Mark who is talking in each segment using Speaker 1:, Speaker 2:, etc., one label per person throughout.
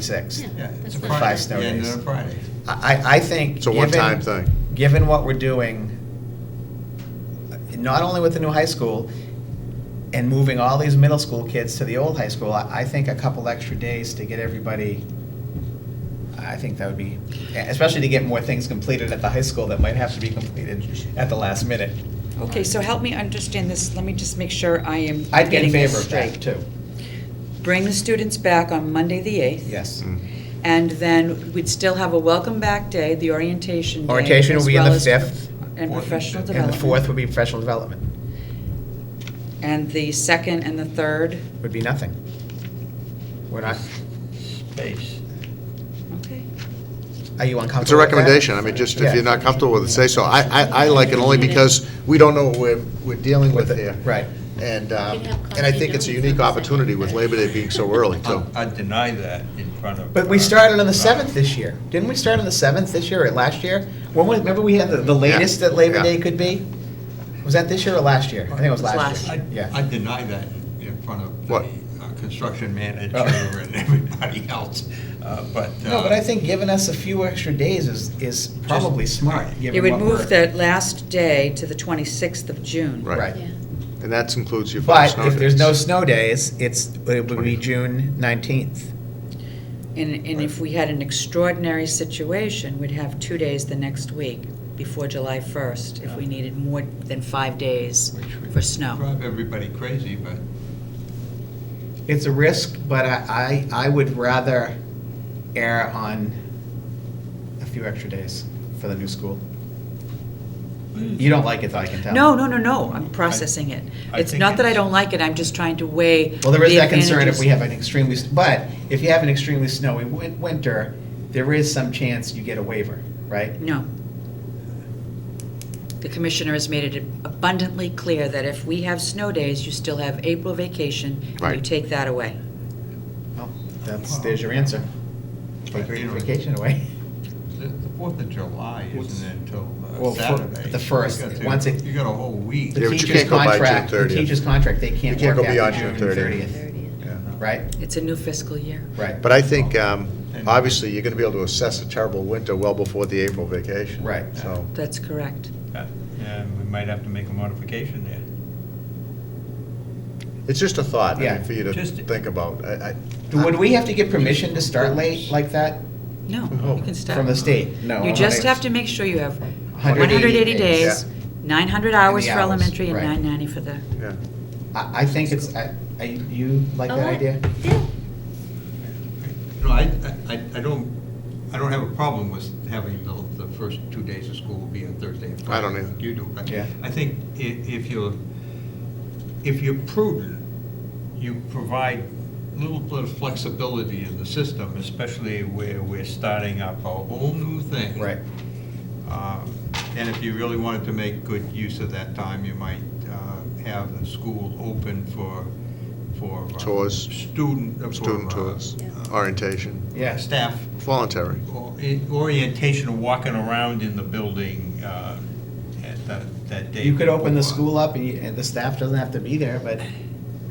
Speaker 1: 26th.
Speaker 2: Yeah,
Speaker 3: it's
Speaker 2: that's
Speaker 3: a
Speaker 2: fine.
Speaker 3: Friday,
Speaker 1: Five
Speaker 3: the end
Speaker 1: snow
Speaker 3: of
Speaker 1: days.
Speaker 3: the Friday.
Speaker 1: I, I think.
Speaker 4: It's a one-time
Speaker 1: given-
Speaker 4: thing.
Speaker 1: Given what we're doing, not only with the new high school and moving all these middle school kids to the old high school, I, I think a couple extra days to get everybody, I think that would be, especially to get more things completed at the high school that might have to be completed at the last minute.
Speaker 5: Okay, so help me understand this, let me just make sure I am
Speaker 1: I'd get in
Speaker 5: getting
Speaker 1: favor
Speaker 5: this
Speaker 1: of that
Speaker 5: straight.
Speaker 1: too,
Speaker 5: Bring the students back on Monday, the 8th.
Speaker 1: yes.
Speaker 4: Mm.
Speaker 5: And then we'd still have a welcome back day, the orientation day.
Speaker 1: Orientation will
Speaker 5: as
Speaker 1: be on the
Speaker 5: well as-
Speaker 1: 5th.
Speaker 5: And
Speaker 3: Fourth and
Speaker 5: professional
Speaker 3: fifth.
Speaker 1: And the fourth
Speaker 5: development.
Speaker 1: would be professional development,
Speaker 5: And the second and the third.
Speaker 1: would be nothing. We're not,
Speaker 3: Space.
Speaker 5: Okay.
Speaker 1: are you uncomfortable with that?
Speaker 4: It's a recommendation, I mean, just if
Speaker 1: Yeah.
Speaker 4: you're not comfortable with it, say so. I, I, I like it only because we don't know what we're, we're dealing with here.
Speaker 1: Right.
Speaker 4: And, um,
Speaker 2: We can have
Speaker 4: and I
Speaker 2: coffee
Speaker 4: think it's a
Speaker 2: donuts
Speaker 4: unique
Speaker 2: on the
Speaker 4: opportunity
Speaker 2: second
Speaker 4: with
Speaker 2: day.
Speaker 4: Labor Day being so early, too.
Speaker 1: Um,
Speaker 3: I I deny that in front of. uh,
Speaker 1: But we started on the seventh this year. Didn't we start on the seventh this year or last year? When was, remember we had the, the latest that Labor
Speaker 4: Yeah.
Speaker 1: Day could be? Was that this year or last year? I think it was
Speaker 5: It was
Speaker 1: last
Speaker 5: last
Speaker 3: I,
Speaker 1: year.
Speaker 3: I
Speaker 1: Yeah.
Speaker 3: deny that in front of the
Speaker 4: What?
Speaker 3: uh, construction manager
Speaker 1: Oh.
Speaker 3: and everybody else, uh, but.
Speaker 1: No,
Speaker 3: uh,
Speaker 1: but I think giving us a few extra days is, is probably
Speaker 3: Just-
Speaker 1: smart.
Speaker 3: right.
Speaker 1: given
Speaker 5: It would
Speaker 1: what
Speaker 5: move
Speaker 1: we're-
Speaker 5: that last day to the 26th of June.
Speaker 4: Right.
Speaker 1: Right.
Speaker 2: Yeah.
Speaker 4: And that includes your five
Speaker 1: But
Speaker 4: snow
Speaker 1: if there's no
Speaker 4: days.
Speaker 1: snow days, it's, it would be June nineteenth.
Speaker 5: And, and if we had an extraordinary situation, we'd have two days the next week before July 1st, if we needed more than five days
Speaker 3: which would
Speaker 5: for snow.
Speaker 3: Drive everybody crazy, but
Speaker 1: It's a risk, but I, I, I would rather err on a few extra days for the new school. You don't like it, though, I can tell.
Speaker 5: No, no, no, no, I'm processing it.
Speaker 3: I
Speaker 5: It's
Speaker 3: think
Speaker 5: not that I
Speaker 3: it's-
Speaker 5: don't like it, I'm just trying to weigh
Speaker 1: Well, there is
Speaker 5: the
Speaker 1: that concern if
Speaker 5: advantages.
Speaker 1: we have an extremely, but if you have an extremely snowy win- winter, there is some chance you get a waiver, right?
Speaker 5: No. The commissioner has made it abundantly clear that if we have snow days, you still have April vacation, and you
Speaker 4: Right.
Speaker 5: take that away.
Speaker 1: Well, that's, there's your answer. Take your vacation away.
Speaker 3: the the Fourth of July
Speaker 1: What's-
Speaker 3: isn't until uh,
Speaker 1: Well, fir-
Speaker 3: Saturday.
Speaker 1: the first,
Speaker 3: You got to-
Speaker 1: once it-
Speaker 3: You got a whole week.
Speaker 1: The
Speaker 4: Yeah, but you
Speaker 1: teacher's
Speaker 4: can't go by June
Speaker 1: contract-
Speaker 4: 30th.
Speaker 1: The teacher's contract, they can't
Speaker 4: You can't
Speaker 1: work
Speaker 4: go beyond
Speaker 1: after June
Speaker 4: June 30th.
Speaker 1: 30th,
Speaker 3: Yeah.
Speaker 1: right?
Speaker 5: It's a new fiscal year.
Speaker 1: Right,
Speaker 4: But I think, um,
Speaker 3: And-
Speaker 4: obviously, you're gonna be able to assess a terrible winter well before the April vacation.
Speaker 1: Right.
Speaker 4: So,
Speaker 5: That's correct.
Speaker 3: Uh, And we might have to make a modification there.
Speaker 4: it's just a thought, I
Speaker 1: Yeah.
Speaker 4: mean, for you to
Speaker 3: Just-
Speaker 4: think about. I,
Speaker 1: Would we have to get permission to start late like that
Speaker 5: No,
Speaker 4: Oh,
Speaker 5: you can stop.
Speaker 1: from the state? No.
Speaker 5: You just have to make sure you have 180 days, 900 hours for
Speaker 1: hours,
Speaker 5: elementary and
Speaker 1: right.
Speaker 5: 990 for the,
Speaker 4: I, yeah.
Speaker 1: I, I think it's, I, I- you like
Speaker 2: Oh,
Speaker 1: that
Speaker 2: I-
Speaker 1: idea?
Speaker 2: Yeah.
Speaker 3: No, I, I, I don't, I don't have a problem with having the, the first two days of school will be on Thursday and
Speaker 4: I
Speaker 3: Friday.
Speaker 4: don't either.
Speaker 3: You do. but
Speaker 1: Yeah.
Speaker 3: I think i- if you're, if you're prudent, you provide a little bit of flexibility in the system, especially where we're starting up a whole new thing.
Speaker 1: Right.
Speaker 3: Um, And if you really wanted to make good use of that time, you might uh, have the school open for, for. uh,
Speaker 4: Tours.
Speaker 3: Student. uh, for,
Speaker 4: Student
Speaker 3: uh,
Speaker 4: tours,
Speaker 2: Yeah.
Speaker 4: orientation,
Speaker 1: Yeah.
Speaker 3: Staff
Speaker 4: voluntary.
Speaker 3: or- orientation of walking around in the building uh, at that- that day.
Speaker 1: You could open the school up and you, and the staff doesn't have to be there, but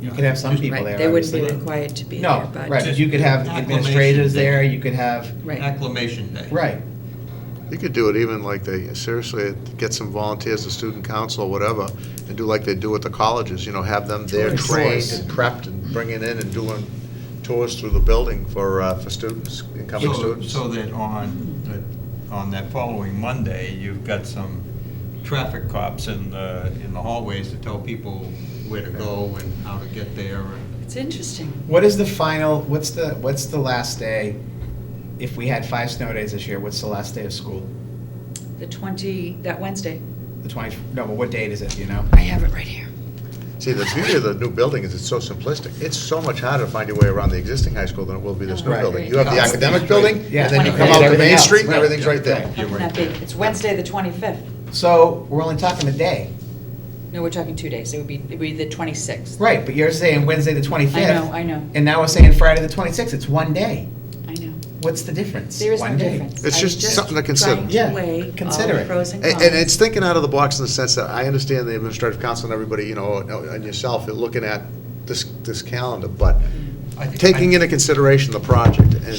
Speaker 1: you could have some people there,
Speaker 5: right, they wouldn't be
Speaker 1: obviously.
Speaker 5: required to be there,
Speaker 1: No,
Speaker 5: but.
Speaker 1: right, but you could have
Speaker 3: Acclimation
Speaker 1: administrators
Speaker 3: day.
Speaker 1: there, you could have,
Speaker 5: Right.
Speaker 3: Acclimation day.
Speaker 1: right,
Speaker 4: You could do it even like they, seriously, get some volunteers, the student council, or whatever, and do like they do at the colleges, you know, have them there
Speaker 1: Tours.
Speaker 4: trained
Speaker 1: Tours.
Speaker 4: and prepped and bringing in and doing tours through the building for, uh, for students, incoming
Speaker 3: So,
Speaker 4: students.
Speaker 3: so that on, the- on that following Monday, you've got some traffic cops in the, in the hallways to tell people where to go and how to get there and.
Speaker 5: It's interesting.
Speaker 1: What is the final, what's the, what's the last day? If we had five snow days this year, what's the last day of school?
Speaker 5: The 20, that Wednesday.
Speaker 1: The twenty, no, but what date is it, do you know?
Speaker 5: I have it right here.
Speaker 4: See, the beauty of the new building is it's so simplistic. It's so much harder to find your way around the existing high school than it will be this new
Speaker 1: Right.
Speaker 4: building. You have the academic building,
Speaker 1: Yeah.
Speaker 4: and then you
Speaker 5: Right.
Speaker 4: come out to
Speaker 1: Everything
Speaker 4: Main
Speaker 1: else,
Speaker 4: Street, and
Speaker 1: right.
Speaker 4: everything's right there.
Speaker 5: How can that be? It's Wednesday, the 25th.
Speaker 1: So, we're only talking a day,
Speaker 5: No, we're talking two days. It would be, it would be the 26th.
Speaker 1: right, but you're saying Wednesday the twenty-fifth.
Speaker 5: I know, I know.
Speaker 1: And now we're saying Friday the twenty-sixth, it's one day.
Speaker 5: I know.
Speaker 1: What's the difference?
Speaker 5: There is no
Speaker 1: One day.
Speaker 5: difference.
Speaker 4: It's
Speaker 5: I was
Speaker 4: just something to consider.
Speaker 5: trying
Speaker 1: Yeah,
Speaker 5: weigh all
Speaker 1: consider
Speaker 5: the
Speaker 1: it.
Speaker 5: pros and
Speaker 4: And,
Speaker 5: cons.
Speaker 4: and it's thinking out of the box in the sense that I understand the administrative council and everybody, you know, and yourself, are looking at this, this calendar, but
Speaker 3: I think- I-
Speaker 4: taking into consideration the project and